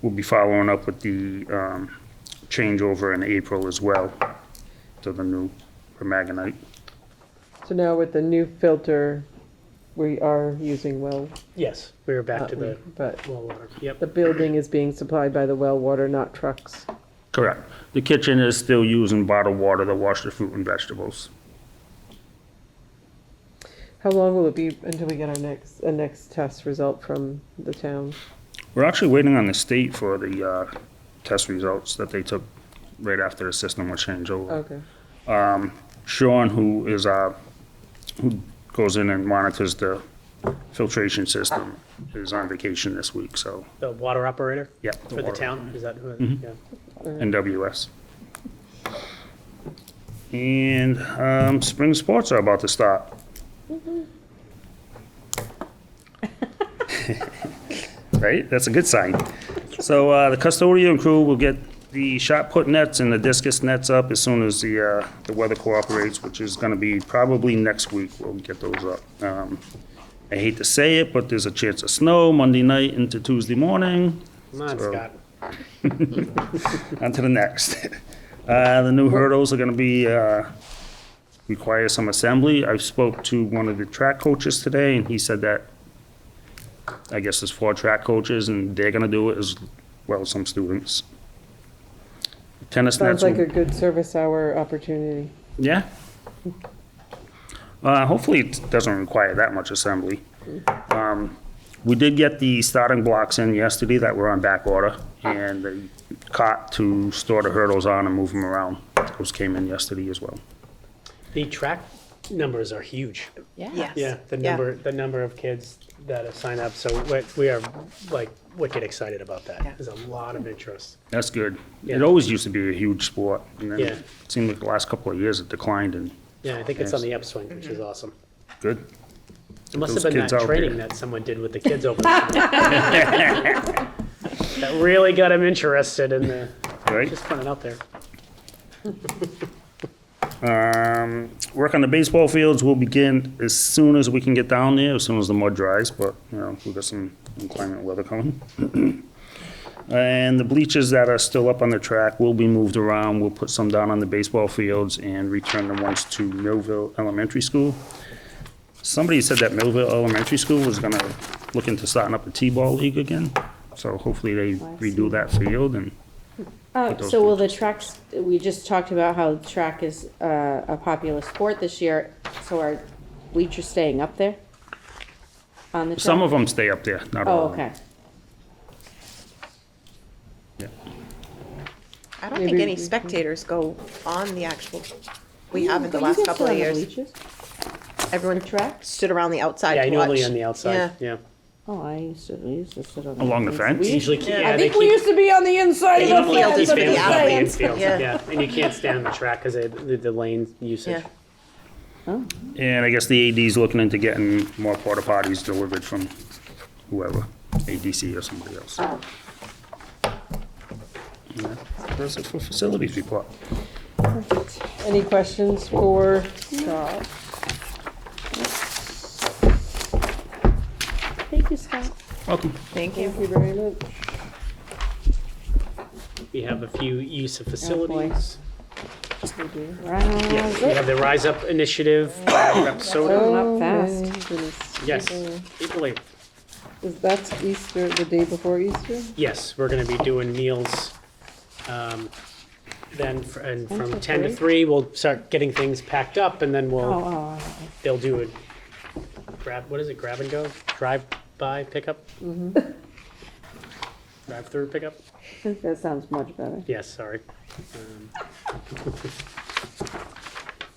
We'll be following up with the um, changeover in April as well to the new permagonite. So now with the new filter, we are using well, Yes, we were back not to we, the but well water. Yep, the building is being supplied by the well water, not trucks. Correct. The kitchen is still using bottled water to wash the fruit and vegetables. How long will it be until we get our next, a next test result from the town? We're actually waiting on the state for the uh, test results that they took right after the system was changed over. Okay, Sean, who is, uh, who goes in and monitors the filtration system, is on vacation this week, so, the water operator yeah. for the water- town, is that who, yeah. NWS. And um, spring sports are about to start. right? That's a good sign. So uh, the custodian crew will get the shot put nets and the discus nets up as soon as the, uh, the weather cooperates, which is going to be probably next week we'll get those up. Um, I hate to say it, but there's a chance of snow Monday night into Tuesday morning. Come on, So- Scott. On to the next. Uh, the new hurdles are gonna be, uh, require some assembly. I spoke to one of the track coaches today and he said that, I guess there's four track coaches and they're gonna do it as well as some students. Tennis nets, sounds like a will- good service hour opportunity. yeah. Uh, hopefully it doesn't require that much assembly. Um, we did get the starting blocks in yesterday that were on back order, and the cot to store the hurdles on and move them around. Those came in yesterday as well. The track numbers are huge. Yeah. Yeah, the Yeah. number, the number of kids that have signed up, so we- we are like wicked excited about that. Yeah. There's a lot of interest. That's good. It Yeah. always used to be a huge sport, and then Yeah. it seemed like the last couple of years it declined, and Yeah, I think it's on Yes. the upswing, which is awesome. good. It must those have been kids that out training there. that someone did with the kids over. the summer. That really got them interested in the, Right? just putting it out there. Um, work on the baseball fields will begin as soon as we can get down there, as soon as the mud dries, but, you know, we've got some inclement weather coming. And the bleachers that are still up on the track will be moved around. We'll put some down on the baseball fields and return the ones to Millville Elementary School. Somebody said that Millville Elementary School was gonna look into starting up a T-ball league again, so hopefully they Oh, redo that field and, Uh, those so will the tracks, we just talked about how track is, uh, a popular sport this year, so are bleachers staying up there? On the track? some of them stay up there, not all Oh, of them. okay. I don't think Maybe any we can- spectators go on the actual, we haven't the You last guys couple sit of on the years. bleachers? Everyone stood around the outside Yeah, to watch. annually on the outside, yeah. Oh, I used to, we used to sit on. Along the bleachers. fence? We used- Usually, yeah, I they think we keep used to be on the inside The of the infield fence, is I'm for the just outside. saying. Infield, Yeah. yeah, and you can't stand on the track because of the, the lane usage. Yeah. And I guess the AD's looking into getting more porta potties delivered from whoever, ADC or somebody else. Yeah, That's it for facilities report. Any questions for Scott? Thank you, Scott. Welcome. Thank you. Thank you very much. We have a few use of facilities. Round Yes, we have the Rise Up Initiative, Rep Soda. Going up Oh, fast. my goodness. Yes, April 8th. Is that Easter, the day before Easter? Yes, we're gonna be doing meals. um, Then, fr- and from to 10 to 3, three? we'll start getting things packed up and then Oh, we'll, oh, they'll do a grab, what is it, grab and go? Drive-by pickup? Drive-through pickup? I think that sounds much better. Yes, sorry. Um,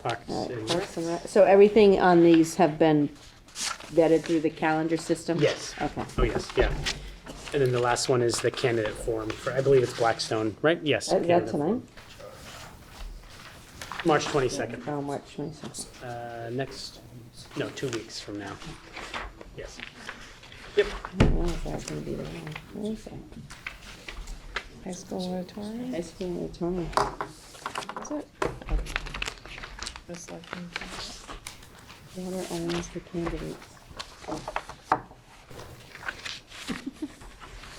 Parks and- Parks and Rec- So everything on these have been vetted through the calendar system? Yes. Okay. Oh, yes, yeah. And then the last one is the candidate forum for, I believe it's Blackstone, right? Yes. Uh, Is that candidate tonight? forum. March 22nd, How much, myself? uh, next, no, two weeks from now. Yes. Yep, Where is that gonna be? Where is that? High school auditorium. High school auditorium. Is it? Miss Larkin. Water owns the candidates.